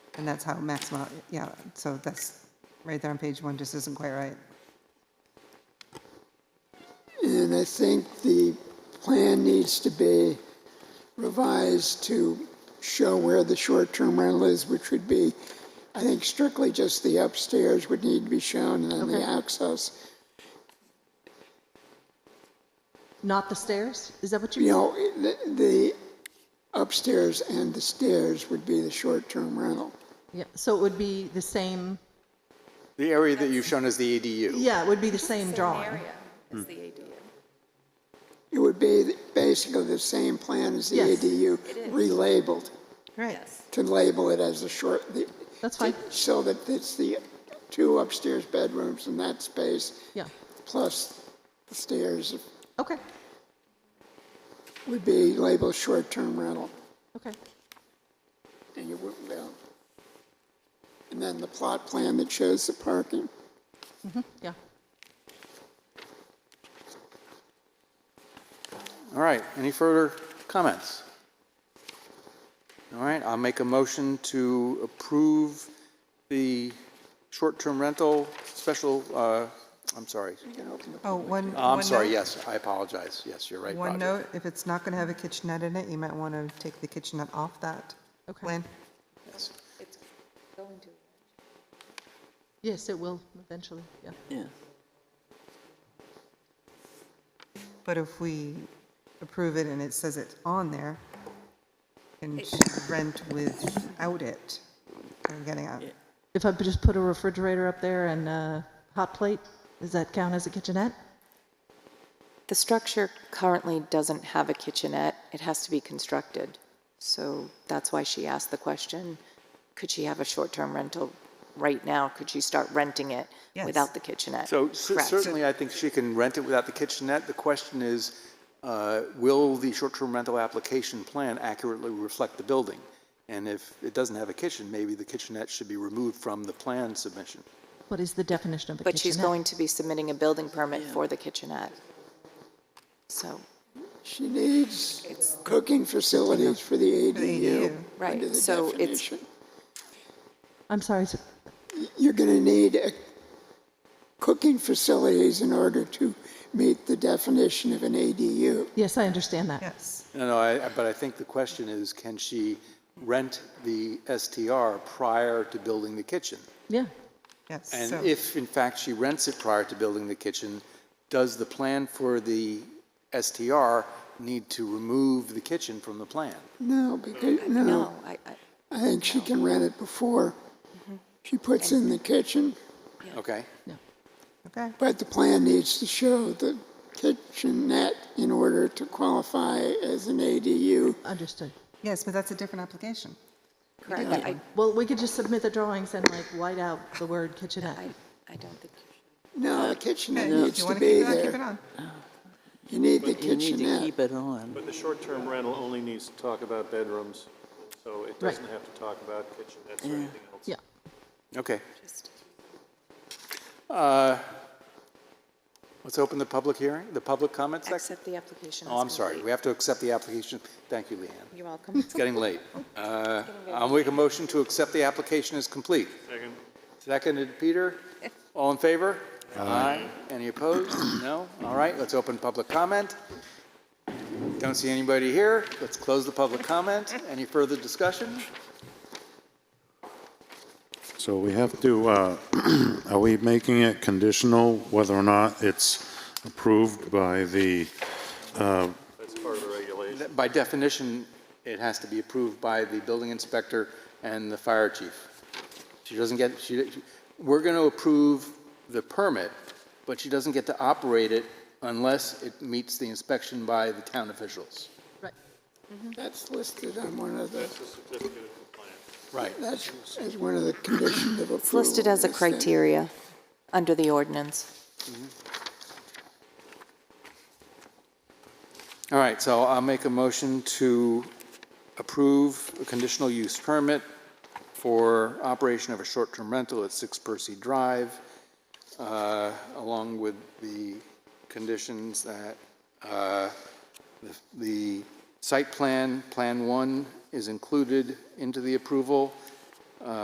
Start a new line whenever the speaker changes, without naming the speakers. And that's how maximum, yeah, so that's, right there on page one just isn't quite right.
And I think the plan needs to be revised to show where the short-term rental is, which would be, I think strictly just the upstairs would need to be shown and then the access.
Not the stairs? Is that what you
You know,
mean?
the, the upstairs and the stairs would be the short-term rental.
Yeah, so it would be the same,
The area that you've shown as the E ADU.
yeah, it would be the same drawing.
Hmm.
It's the ADU.
It would be basically the same plan as the
Yes.
ADU, relabeled,
Right.
to label it as the short, the.
That's fine.
So that it's the two upstairs bedrooms in that space.
Yeah,
plus the stairs
okay,
would be labeled short-term rental,
okay.
and you wouldn't know. And then the plot plan that shows the parking.
Yeah,
All right, any further comments? All right, I'll make a motion to approve the short-term rental special, uh, I'm sorry.
Oh, one.
I'm
one
sorry,
note-
yes, I apologize. Yes, you're right,
One
Roger.
note, if it's not going to have a kitchenette in it, you might want to take the kitchenette off that
Okay.
plan.
Yes.
yes, it will eventually, yeah.
But if we approve it and it says it's on there, and rent without it, I'm getting out.
If I just put a refrigerator up there and a hot plate, does that count as a kitchenette?
The structure currently doesn't have a kitchenette. It has to be constructed. So that's why she asked the question, could she have a short-term rental right now? Could she start renting it
Yes.
without the kitchenette?
So cer-
Correct.
certainly, I think she can rent it without the kitchenette. The question is, uh, will the short-term rental application plan accurately reflect the building? And if it doesn't have a kitchen, maybe the kitchenette should be removed from the plan submission.
What is the definition of a kitchenette?
But she's going to be submitting a building permit for the kitchenette. So,
She needs cooking facilities for the ADU.
ADU.
Right,
under the
so it's-
definition.
I'm sorry, so-
You're gonna need a- cooking facilities in order to meet the definition of an ADU.
yes, I understand that.
Yes.
No, no, I, I- but I think the question is, can she rent the STR prior to building the kitchen?
Yeah,
Yes.
And
so-
if, in fact, she rents it prior to building the kitchen, does the plan for the STR need to remove the kitchen from the plan?
No, because,
no,
no,
I, I,
I think she can rent it before.
Mm-hmm.
She puts in the kitchen,
Okay?
yeah,
Okay.
but the plan needs to show the kitchenette in order to qualify as an ADU.
understood.
Yes, but that's a different application.
correct. I,
Well, we could just submit the drawings and like white out the word kitchenette.
I, I don't think,
No, the kitchenette
Okay, If
needs
you
to
want to keep
be
it on, keep it
there.
on.
You need the
But you need to
kitchenette.
keep it on.
But the short-term rental only needs to talk about bedrooms, so it doesn't have to talk about kitchenettes or anything else.
Yeah,
Okay. Uh, Let's open the public hearing, the public comment section.
accept the application.
Oh,
as
I'm sorry,
complete.
we have to accept the application. Thank you, Leanne.
You're welcome.
It's getting late. Uh, I'll make a motion to accept the application as complete.
Second.
Seconded, Peter. All in favor? Aye. Any opposed? No? All right, let's open public comment. Don't see anybody here. Let's close the public comment. Any further discussion?
So we have to, uh, are we making it conditional whether or not it's approved by the,
That's part of the regulation.
By definition, it has to be approved by the building inspector and the fire chief. She doesn't get, she, we're going to approve the permit, but she doesn't get to operate it unless it meets the inspection by the town officials.
right.
That's listed on one of the,
It's a certificate of compliance.
Right.
that's as one of the conditions of approval.
It's listed as a
is that-
criteria under the ordinance.
All right, so I'll make a motion to approve a conditional use permit for operation of a short-term rental at 6 Percy Drive, uh, along with the conditions that uh, the- the site plan, Plan 1, is included into the approval,